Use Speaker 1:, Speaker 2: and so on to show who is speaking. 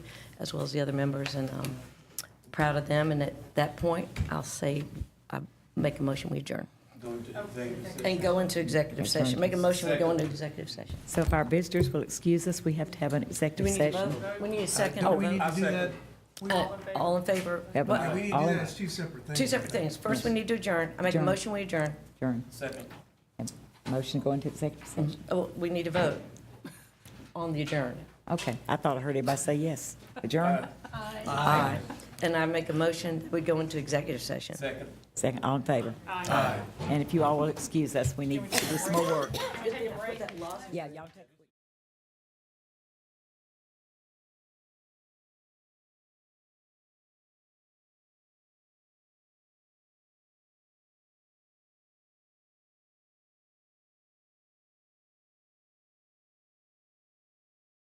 Speaker 1: as well as the other members, and um, proud of them. And at that point, I'll say, I make a motion, we adjourn. And go into executive session. Make a motion, we go into executive session.
Speaker 2: So if our visitors will excuse us, we have to have an
Speaker 1: Do we
Speaker 2: executive
Speaker 1: need to
Speaker 2: session.
Speaker 1: vote? Uh, We need a second.
Speaker 2: Oh,
Speaker 1: to
Speaker 2: we
Speaker 1: vote.
Speaker 2: need-
Speaker 3: I do that,
Speaker 1: Uh, All in favor?
Speaker 2: Yeah, but-
Speaker 1: Well,
Speaker 3: we need to do
Speaker 2: All
Speaker 3: that
Speaker 2: of
Speaker 3: as two separate things.
Speaker 1: Two separate things. First, we need to adjourn. I make a
Speaker 2: Adjourn.
Speaker 1: motion, we adjourn.
Speaker 2: Adjourn.
Speaker 3: Second.
Speaker 2: And Motion to go into executive session.
Speaker 1: Oh, we need to vote on the adjourn.
Speaker 2: Okay, I thought I heard everybody say yes. Adjourn.
Speaker 1: Aye. And I make a motion, we go into executive session.
Speaker 3: Second.
Speaker 2: Second, all in favor? Aye. And if you all will excuse us, we need to do some more work.
Speaker 1: Put that law-
Speaker 2: Yeah, y'all take.